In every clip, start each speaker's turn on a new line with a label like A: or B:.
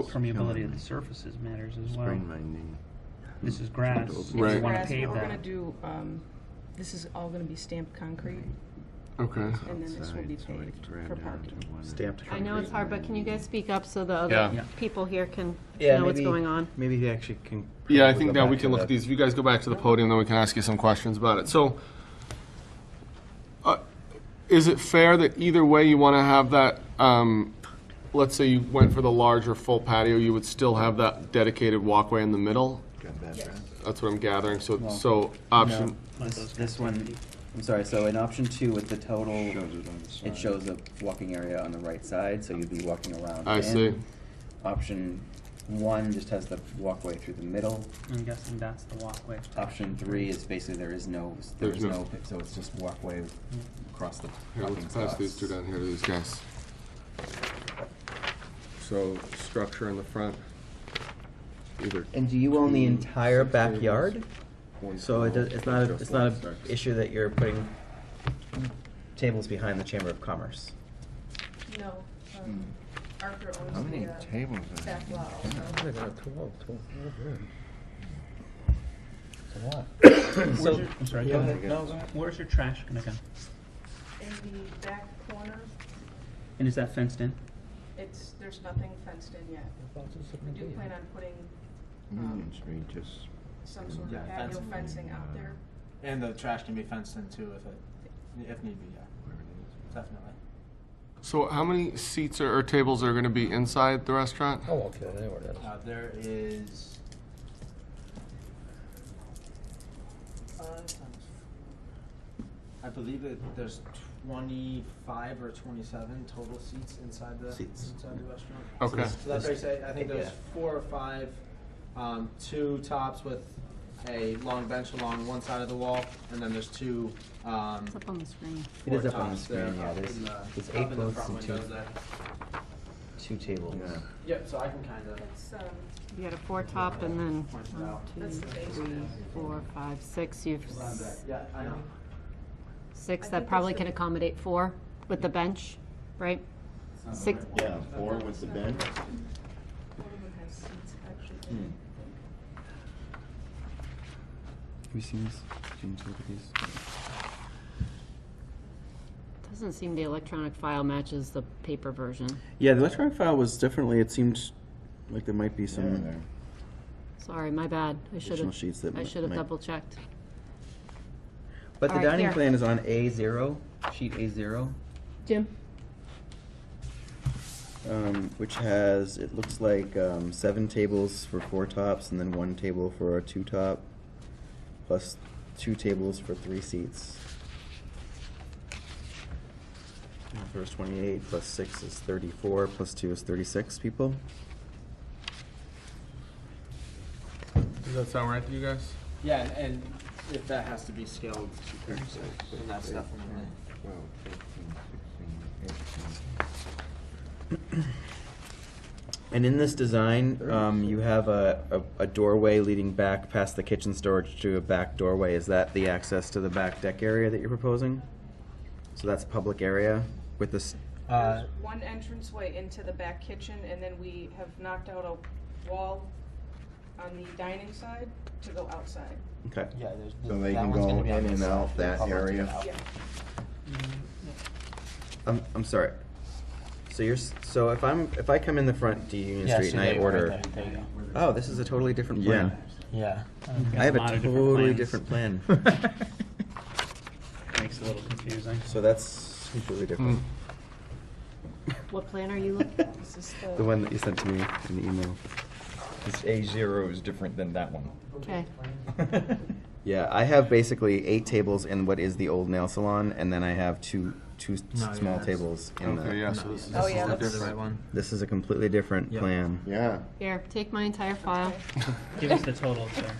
A: So-
B: permeability of the surfaces matters as well.
C: Sprained my knee.
B: This is grass. If you want to
A: Right.
D: Whereas
B: pave
D: We're gonna
B: that.
D: do, um, this is all gonna be stamped concrete,
A: Okay.
D: and then this will be
C: Outside, so I
D: paved
C: ran
D: for
C: down
D: parking.
C: to one-
E: Stamped
F: I know it's hard, but can you guys speak up so the
A: Yeah.
F: other
B: Yeah.
F: people here can
E: Yeah,
F: know what's
E: maybe- Mm.
F: going on?
E: Maybe they actually can.
A: Yeah, I
E: probably
A: think
E: go
A: now we
E: back
A: can
E: to
A: look
E: that.
A: at these. If you guys go back to the podium, then we can ask you some questions about it. So, uh, is it fair that either way you want to have that, um, let's say you went for the larger full patio, you would still have that dedicated walkway in the middle?
C: Got that, right?
A: That's what I'm gathering, so, so option,
G: This, this one, I'm sorry, so in option two with the total,
C: Shows it on the
G: it
C: side.
G: shows a walking area on the right side, so you'd be walking around.
A: I
G: in.
A: see.
G: Option one just has the walkway through the middle.
B: I'm guessing that's the walkway.
G: Option three is basically there is no, there
A: There's
G: is
A: no-
G: no, so it's just walkway across the
A: here,
G: parking
A: let's pass these two
G: spots.
A: down here to these guys. So, structure in the front, either.
E: And do you own the
A: two,
E: entire
A: six tables,
E: backyard?
A: one
E: So it does,
A: twelve,
E: it's not, a-
A: just
E: it's not
A: one
E: an
A: six.
E: issue that you're putting tables behind the Chamber of Commerce?
D: No, um, Arthur
C: Hmm. How
D: owns
C: many
D: the, uh,
C: tables are there?
D: back lot also.
B: Where's your, I'm sorry, go ahead.
E: No,
B: Where's your trash gonna go?
D: In the back corner,
B: And is that fenced in?
D: it's, there's nothing fenced in yet. We do plan on putting
C: Union Street, just,
D: some sort
H: Yeah,
D: of patio
H: fencing.
D: um, fencing
C: Uh,
D: out there.
H: And the trash can be fenced in too if it, if need be, yeah,
C: where it
H: definitely.
A: So how many seats or, or tables are going to be inside the restaurant?
I: Oh, okay, there it is.
H: Uh, there is. five times four. I believe that there's twenty-five or twenty-seven total seats inside the,
E: Seats.
H: inside the restaurant.
A: Okay.
H: So that's where you say, I think
E: Yeah.
H: there's four or five, um, two tops with a long bench along one side of the wall, and then there's two, um,
F: It's up on the screen.
E: It is
H: four
E: up on the
H: tops there
E: screen, yeah,
H: up
E: there's,
H: in the-
E: there's
H: up in
E: eight
H: the
E: booths
H: front
E: and two,
H: windows there.
E: two tables.
C: is. Yeah.
H: Yep, so I can kind of.
D: That's, um,
F: You got a four top and then one, two,
D: That's the
F: three, four, five, six. You've s-
H: Yeah, I know.
F: six
D: I
F: that
D: think
F: probably
D: that's
F: can
D: the-
F: accommodate four with the bench, right? Six,
J: Yeah, four with the bench.
D: one of them has seats actually.
G: Hmm. Have you seen this? Did you look at these?
F: doesn't seem the electronic file matches the paper version.
E: Yeah, the electronic file was differently, it seemed like there might be
C: Yeah.
F: Sorry, my bad. I should
E: Additional sheets that
F: have, I
E: might-
F: should have
E: might-
F: double checked.
E: But the
F: Alright,
E: dining
F: here.
E: plan is on A zero, sheet A zero,
F: Jim?
E: um,
G: Which has, it looks like, um, seven tables for four tops and then one table for a two top, plus two tables for three seats. And the First twenty-eight plus six is thirty-four, plus two is thirty-six people.
A: Does that sound right to you guys?
H: Yeah, and, and if that has to be scaled, then that's definitely.
C: Twelve, fifteen, sixteen, eighteen.
G: And in this design, um, you have a, a, a doorway leading back past the kitchen storage to a back doorway. Is that the access to the back deck area that you're proposing? So that's public area with this,
H: Uh,
D: There's one entranceway into the back kitchen, and then we have knocked out a wall on the dining side to go outside.
G: okay.
E: Yeah, there's.
C: So they can go in and out that area?
D: Yeah.
G: I'm, I'm sorry. So you're, s- so if I'm, if I come in the front to Union Street and I order,
E: Oh, this is a totally different
G: Yeah.
E: plan.
I: Yeah.
G: I have a
B: lot of different
G: totally
B: plans.
G: different plan.
B: Makes it a little confusing.
G: So that's completely different.
J: Mm.
F: What plan are you looking at?
D: This is
G: The one that you sent to me in the email.
J: This A zero is different than that one.
F: Okay.
G: Yeah, I have basically eight tables in what is the old nail salon, and then I have two, two s-
H: No, yeah,
G: small
H: that's-
G: tables in the.
A: Okay, yeah, so this,
D: Oh,
A: this
D: yeah,
A: is
D: that's-
H: the right
A: different.
H: one.
G: This is a completely different
H: Yep.
G: plan.
C: Yeah.
F: Here, take my entire file.
B: Give us the total, sir.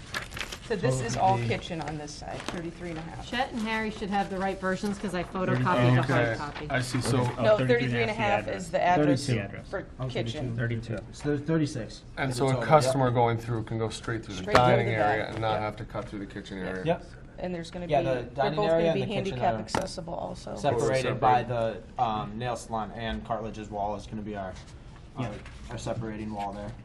D: So this is all kitchen on this side, thirty-three and a half.
F: Chet and Harry should have the right versions because I photocopied the hard
A: Okay,
F: copy.
A: I see, so,
D: No,
B: Oh,
D: thirty-three and a half is the address Oh, for kitchen.
B: Thirty-two.
H: So there's thirty-six.
A: and so a customer going through can go straight through the
D: Straight through
A: dining
D: the
A: area
D: back,
A: and not
D: yeah.
A: have to cut through the kitchen area?
H: Yep,
D: And there's gonna be,
H: Yeah, the
D: they're both
H: dining area
D: gonna
H: and
D: be
H: the kitchen
D: handicap
H: are
D: accessible also.
A: Separate.
H: separated by the, um, nail salon and cartilage's wall is gonna be our,
B: Yeah.
H: our- our separating wall there.